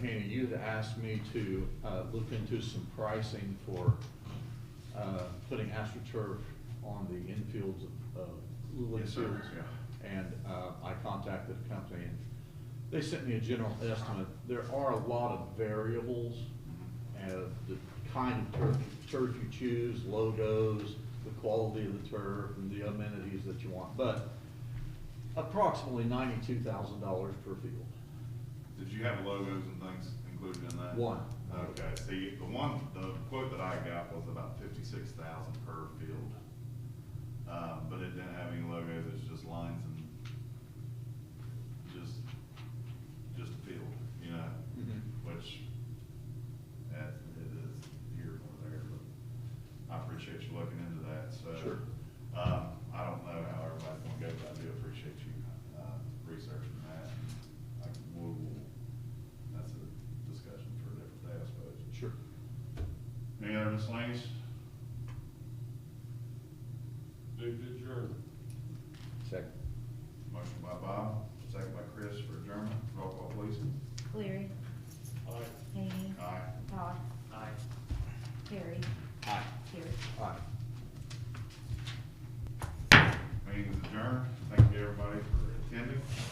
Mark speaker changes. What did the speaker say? Speaker 1: Hannah, you had asked me to uh, look into some pricing for uh, putting AstroTurf on the infields of- of Luling
Speaker 2: Yes, sir,
Speaker 1: fields. And uh, I contacted a company, and they sent me a general estimate. There are a lot of variables, and the kind of turf, turf you choose, logos, the quality of the turf, and the amenities that you want. But approximately ninety-two thousand dollars per field.
Speaker 2: Did you have logos and things included in that?
Speaker 1: One.
Speaker 2: Okay, see, the one, the quote that I got was about fifty-six thousand per field. Um, but it didn't have any logos, it's just lines and just, just a field, you know?
Speaker 1: Mhm.
Speaker 2: Which, that, it is here or there, but I appreciate you looking into that, so.
Speaker 1: Sure.
Speaker 2: Um, I don't know how everybody's gonna go, but I do appreciate you, uh, researching that. I will, that's a discussion for a different day, I suppose.
Speaker 1: Sure.
Speaker 2: Any other miscellaneous?
Speaker 3: Move to adjourn.
Speaker 1: Second.
Speaker 2: Motion by Bob, second by Chris for adjournment. Roll call, please.
Speaker 4: Cleary.
Speaker 3: Aye.
Speaker 4: Hany.
Speaker 2: Aye.
Speaker 4: Todd.
Speaker 3: Aye.
Speaker 4: Harry.
Speaker 1: Aye.
Speaker 4: Pierce.
Speaker 1: Aye.
Speaker 2: Meeting is adjourned. Thank you, everybody, for attending.